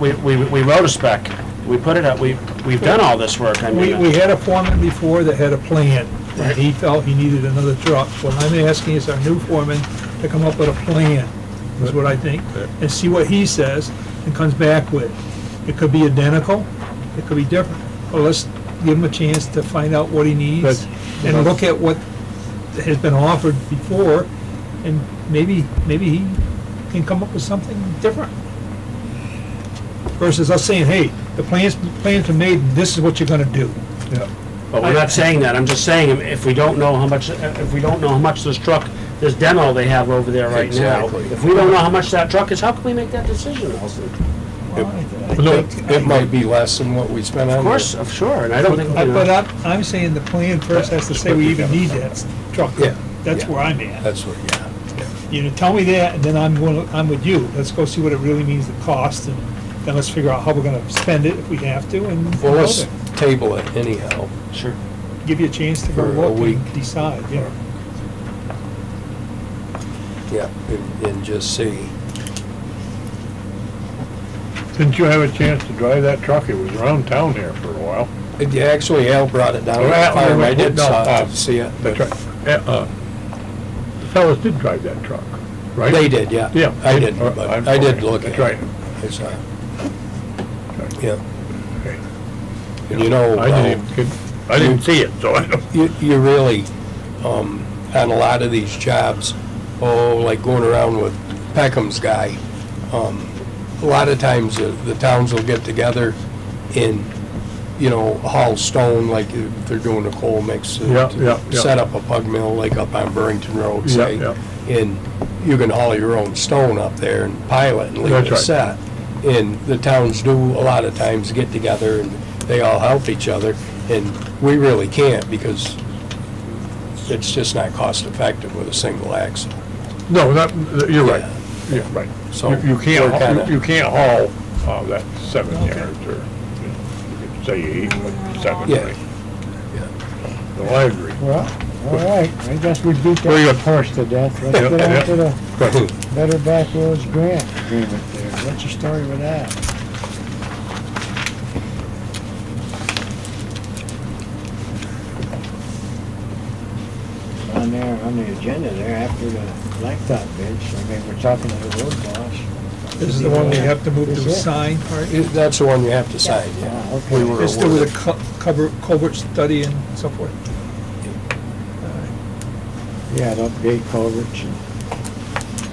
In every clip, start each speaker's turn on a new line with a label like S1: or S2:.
S1: we, we, we wrote a spec, we put it up, we, we've done all this work, I
S2: We,
S1: mean.
S2: we had a foreman before that had a plan, and he felt he needed another truck. What I'm asking is our new foreman to come up with a plan, is what I think, and see what he says and comes back with. It could be identical, it could be different, but let's give him a chance to find out what he needs
S3: But-
S2: and look at what has been offered before, and maybe, maybe he can come up with something different. Versus us saying, hey, the plans, plans are made, and this is what you're gonna do.
S3: Yeah.
S1: But we're not saying that, I'm just saying, if we don't know how much, if we don't know how much this truck, this demo they have over there right now,
S4: Exactly.
S1: if we don't know how much that truck is, how can we make that decision, Nelson?
S2: Well, I- I
S3: No,
S2: think-
S4: It might be less than what we spent on.
S1: Of course, of sure, and I don't think,
S2: I-
S1: you
S2: But
S1: know,
S2: I'm, I'm saying the plan first has to say we even need that truck.
S4: Yeah,
S2: That's
S4: yeah.
S2: where I'm at.
S4: That's what, yeah.
S2: You know, tell me that, and then I'm going, I'm with you. Let's go see what it really means, the cost, and then let's figure out how we're gonna spend it if we have to, and
S4: Well,
S2: go
S4: let's
S2: there.
S4: table it anyhow.
S1: sure.
S2: give you a chance to go
S4: For a
S2: look and
S4: week.
S2: decide, yeah.
S4: Yeah, and- and just see.
S3: Didn't you have a chance to drive that truck? It was around town here for a while.
S4: It- Actually, Al brought it down. to the
S3: Well,
S4: farm. I did
S3: no,
S4: stop
S3: uh,
S4: to see it.
S3: That's right. Uh, uh, The fellas did drive that truck, right?
S4: They did, yeah.
S3: Yeah.
S4: I didn't,
S3: Uh,
S4: but
S3: I'm
S4: I did
S3: sorry.
S4: look at it.
S3: That's right.
S4: I saw it.
S3: Right.
S4: Yeah.
S3: Okay.
S4: And you know, uh, um,
S3: I
S4: Al,
S3: didn't, even- I didn't see it, so I don't.
S4: you, you really, um, on a lot of these jobs, oh, like going around with Peckham's guy, um, a lot of times the, the towns will get together and, you know, haul stone, like if they're doing a coal mix. to-
S3: Yeah,
S4: to
S3: yeah, yeah.
S4: Set up a pug mill, like up on Burrington Road,
S3: Yeah,
S4: say.
S3: yeah.
S4: And you can haul your own stone up there and pile it and leave
S3: That's
S4: it
S3: right.
S4: set. And the towns do a lot of times get together and they all help each other. And we really can't because it's just not cost effective with a single axle.
S3: No, that, you're right.
S4: Yeah.
S3: Yeah, right.
S4: So,
S3: You you can't,
S4: we're
S3: haul-
S4: kinda-
S3: you you can't haul, uh, that seven yards or, you know, say eight, but seven,
S4: Yeah.
S3: right? No, I agree.
S5: Well, all right, I guess we beat
S3: Very
S5: that
S3: good.
S5: horse to death. Let's
S3: Yeah,
S5: get
S3: yeah.
S5: on to the
S4: Right.
S5: Better Back Roads Grant agreement there. What's the story with that? On there, on the agenda there, after the blacktop bid, so I mean, we're talking to the road boss.
S2: This is the one we have to move
S5: Is
S2: to
S5: it?
S2: sign part.
S4: It- That's the one you have to sign,
S5: Ah,
S4: yeah.
S5: okay.
S4: We were
S2: It's still
S4: awarded.
S2: with a co- cover, covert study and so forth.
S5: Yeah, to update culverts and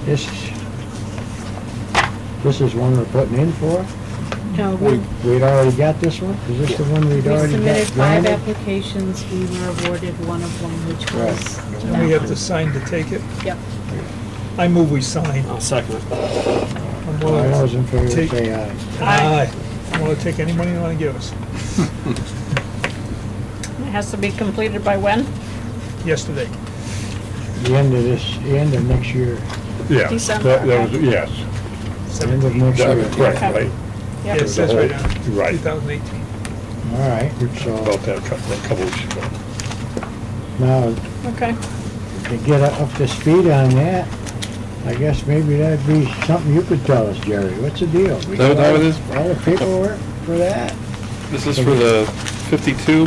S5: this is, this is one we're putting in for?
S6: No,
S4: We-
S6: we
S5: We'd already got this one? Is this the one
S6: we
S5: we'd already
S6: submitted
S5: got
S6: five
S5: granted?
S6: applications, we were awarded one of them, which
S5: Right.
S6: was.
S2: And we
S6: that
S2: have to sign to take it.
S6: one. Yep.
S2: I move we sign.
S1: I'll second it.
S2: I'm
S5: All
S2: willing
S5: those in favor,
S2: Take-
S5: say uh, aye.
S2: Aye. I want to take any money you want to give us.
S6: It has to be completed by when?
S2: Yesterday.
S5: The end of this, the end of next year,
S3: Yeah.
S6: December,
S3: that- that was-
S6: okay.
S3: Yes,
S5: end of
S2: Seventeen.
S5: next
S3: that
S5: year.
S3: was correct,
S6: Okay.
S3: right?
S2: Yeah, it
S6: Yep.
S2: says right on it,
S3: Right.
S2: 2018.
S5: All right,
S3: About
S5: so
S3: that a couple, a couple weeks ago.
S2: Oh.
S5: now
S6: Okay.
S5: to get up to speed on that, I guess maybe that'd be something you could tell us, Jerry. What's the deal? We
S7: That- that
S5: got all-
S7: was-
S5: All the paperwork for that,
S7: This is for the 52.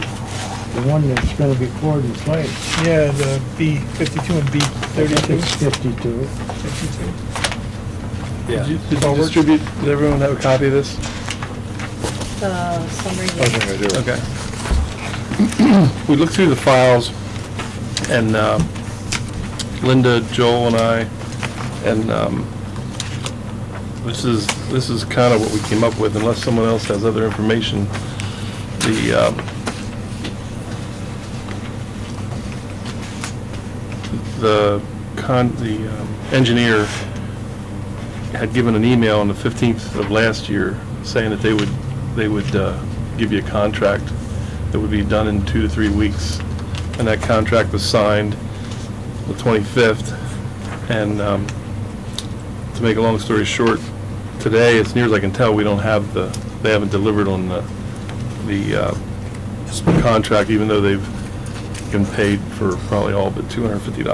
S5: the one that's gonna be poured in place.
S2: Yeah, the B fifty-two and B thirty-two,
S5: It's fifty-two.
S2: fifty-two.
S7: Did you- did you distribute, did everyone have a copy of this?
S6: The summary.
S7: Okay. We looked through the files, and uh, Linda, Joel, and I, and um, this is, this is kind of what we came up with, unless someone else has other information. The, um, the con, the um, engineer had given an email on the 15th of last year saying that they would, they would uh, give you a contract that would be done in two to three weeks. And that contract was signed the 25th. And um, to make a long story short, today, as near as I can tell, we don't have the, they haven't delivered on the, the uh, s- contract, even though they've been paid for probably all but $250.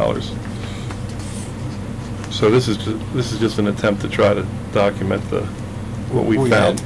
S7: So this is, ju- this is just an attempt to try to document the, what we
S4: We had
S7: found.